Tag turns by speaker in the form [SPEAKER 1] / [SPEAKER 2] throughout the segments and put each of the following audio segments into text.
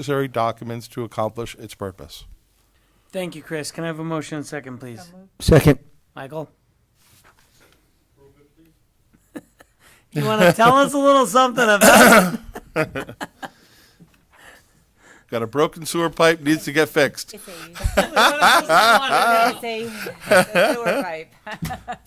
[SPEAKER 1] necessary documents to accomplish its purpose.
[SPEAKER 2] Thank you, Chris. Can I have a motion and second, please?
[SPEAKER 3] Second.
[SPEAKER 2] Michael? You want to tell us a little something about
[SPEAKER 1] Got a broken sewer pipe, needs to get fixed.
[SPEAKER 4] It's a,
[SPEAKER 2] it?
[SPEAKER 4] it's a, a sewer pipe.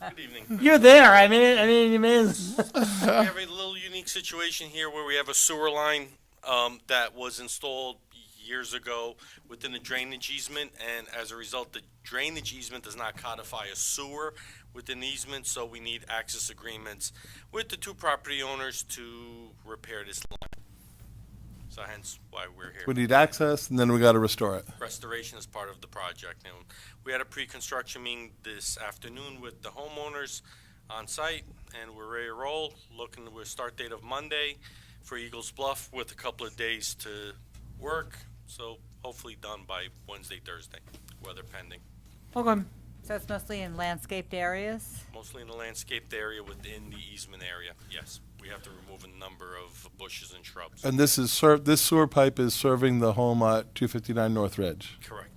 [SPEAKER 5] Good evening.
[SPEAKER 2] You're there. I mean, I mean, you mean,
[SPEAKER 5] We have a little unique situation here where we have a sewer line um, that was installed years ago within a drainage easement, and as a result, the drainage easement does not codify a sewer within the easement, so we need access agreements with the two property owners to repair this line. So hence why we're here.
[SPEAKER 1] We need access, and then we got to restore it.
[SPEAKER 5] restoration is part of the project. And we had a pre-construction meeting this afternoon with the homeowners on site, and we're ready to roll, looking to a start date of Monday for Eagles Bluff with a couple of days to work. So hopefully done by Wednesday, Thursday, weather pending.
[SPEAKER 2] okay.
[SPEAKER 4] So it's mostly in landscaped areas.
[SPEAKER 5] Mostly in the landscaped area within the easement area, yes. We have to remove a number of bushes and shrubs.
[SPEAKER 1] And this is ser- this sewer pipe is serving the home at 259 North Ridge,
[SPEAKER 5] Correct.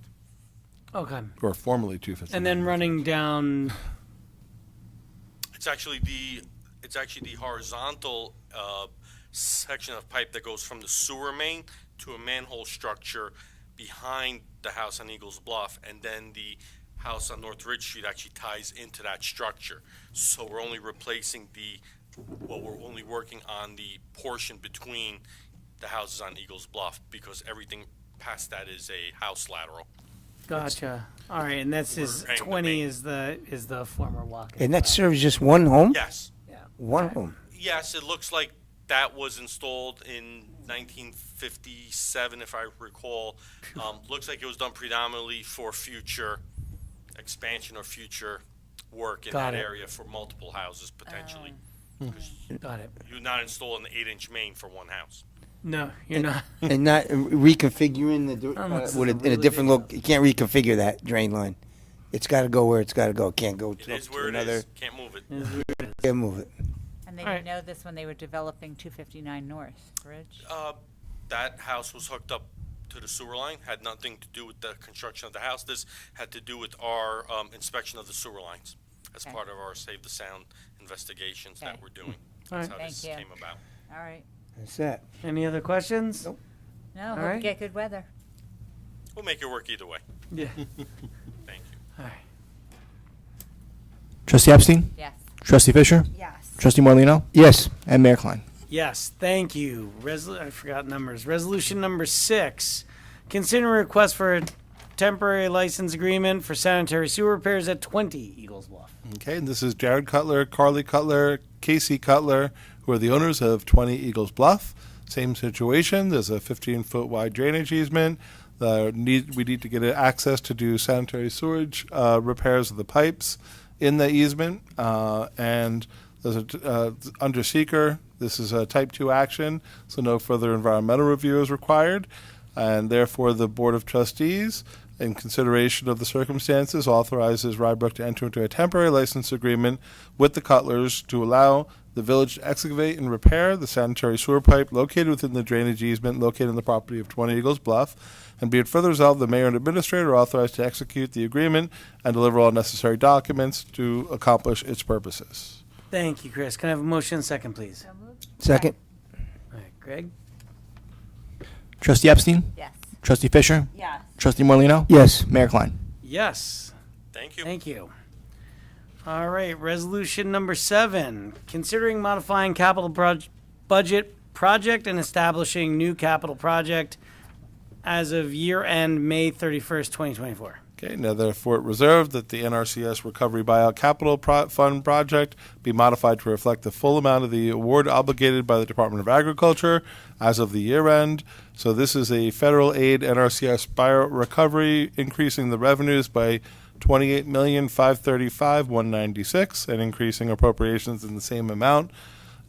[SPEAKER 2] Okay.
[SPEAKER 1] or formerly 259.
[SPEAKER 2] And then running down.
[SPEAKER 5] It's actually the, it's actually the horizontal uh, section of pipe that goes from the sewer main to a manhole structure behind the house on Eagles Bluff, and then the house on North Ridge Street actually ties into that structure. So we're only replacing the, well, we're only working on the portion between the houses on Eagles Bluff, because everything past that is a house lateral.
[SPEAKER 2] Gotcha. All right, and that's is
[SPEAKER 5] Right, the
[SPEAKER 2] twenty
[SPEAKER 5] main-
[SPEAKER 2] is the is the former walk.
[SPEAKER 3] And that serves just one home?
[SPEAKER 5] Yes.
[SPEAKER 3] One home.
[SPEAKER 5] Yes, it looks like that was installed in 1957, if I recall. Um, looks like it was done predominantly for future expansion or future work in
[SPEAKER 2] Got
[SPEAKER 5] that
[SPEAKER 2] it.
[SPEAKER 5] area for multiple houses potentially.
[SPEAKER 2] Got it.
[SPEAKER 5] You're not installing an eight-inch main for one house.
[SPEAKER 2] No, you're not.
[SPEAKER 3] And not reconfiguring the, dir-
[SPEAKER 2] Oh,
[SPEAKER 3] uh,
[SPEAKER 2] this is
[SPEAKER 3] with
[SPEAKER 2] a
[SPEAKER 3] a, in
[SPEAKER 2] really
[SPEAKER 3] a
[SPEAKER 2] big
[SPEAKER 3] different look, you can't reconfigure that drain line. It's gotta go where it's gotta go. It Can't go
[SPEAKER 5] It
[SPEAKER 3] to
[SPEAKER 5] is
[SPEAKER 3] to
[SPEAKER 5] where it
[SPEAKER 3] another,
[SPEAKER 5] is. Can't move it.
[SPEAKER 3] can't move it.
[SPEAKER 4] And they
[SPEAKER 2] All
[SPEAKER 4] didn't know this when they were developing 259 North Ridge.
[SPEAKER 5] Uh, that house was hooked up to the sewer line, had nothing to do with the construction of the house. This had to do with our um, inspection of the sewer lines as
[SPEAKER 4] Okay.
[SPEAKER 5] part of our Save the Sound investigations
[SPEAKER 4] Okay. Hmm.
[SPEAKER 5] that we're doing.
[SPEAKER 2] All
[SPEAKER 5] That's
[SPEAKER 2] right.
[SPEAKER 5] how this
[SPEAKER 4] Thank you.
[SPEAKER 5] came about.
[SPEAKER 4] All right.
[SPEAKER 3] That's that.
[SPEAKER 2] Any other questions?
[SPEAKER 3] Nope.
[SPEAKER 4] No, hope
[SPEAKER 2] right.
[SPEAKER 4] we get good weather.
[SPEAKER 5] We'll make it work either way.
[SPEAKER 2] Yeah.
[SPEAKER 5] Thank you.
[SPEAKER 6] Trustee Epstein,
[SPEAKER 4] Yes.
[SPEAKER 6] Trustee Fisher,
[SPEAKER 4] Yes.
[SPEAKER 6] Trustee Morlino,
[SPEAKER 3] Yes,
[SPEAKER 6] and Mayor Klein.
[SPEAKER 2] Yes, thank you. Resol- I forgot numbers. Resolution number six. Consider a request for a temporary license agreement for sanitary sewer repairs at 20 Eagles Bluff.
[SPEAKER 1] Okay, and this is Jared Cutler, Carly Cutler, Casey Cutler, who are the owners of 20 Eagles Bluff. Same situation. There's a 15 foot wide drainage easement. The need, we need to get access to do sanitary sewage uh, repairs of the pipes in the easement. Uh, and there's a t- uh, under seeker. This is a type 2 action, so no further environmental review is required. And therefore, the Board of Trustees in consideration of the circumstances, authorizes Rybrook to enter into a temporary license agreement with the Cutlers to allow the village to excavate and repair the sanitary sewer pipe located within the drainage easement located on the property of 20 Eagles Bluff. And be it further resolved, the mayor and administrator are authorized to execute the agreement and deliver all necessary documents to accomplish its purposes.
[SPEAKER 2] Thank you, Chris. Can I have a motion and second, please?
[SPEAKER 4] So moved.
[SPEAKER 3] second,
[SPEAKER 2] All right, Greg?
[SPEAKER 6] Trustee Epstein,
[SPEAKER 4] Yes.
[SPEAKER 6] Trustee Fisher,
[SPEAKER 4] Yes.
[SPEAKER 6] Trustee Morlino,
[SPEAKER 3] yes.
[SPEAKER 6] Mayor Klein.
[SPEAKER 2] Yes.
[SPEAKER 5] Thank you.
[SPEAKER 2] Thank you. All right, resolution number seven, considering modifying capital proj- budget project and establishing new capital project as of year end, May 31st, 2024.
[SPEAKER 1] Okay, now therefore it reserved that the NRCS Recovery Buyout Capital Pro- Fund project be modified to reflect the full amount of the award obligated by the Department of Agriculture as of the year end. So this is a federal aid NRCS buyout recovery, increasing the revenues by twenty-eight million, five thirty-five, one ninety-six, and increasing appropriations in the same amount.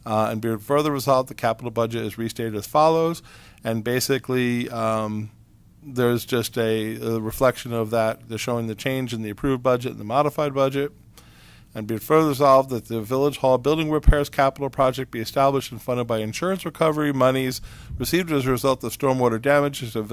[SPEAKER 1] Uh, and be it further resolved, the capital budget is restated as follows, and basically, um, there's just a, a reflection of that. They're showing the change in the approved budget and the modified budget. And be it further resolved that the Village Hall Building Repairs Capital Project be established and funded by insurance recovery monies received as a result of stormwater damages to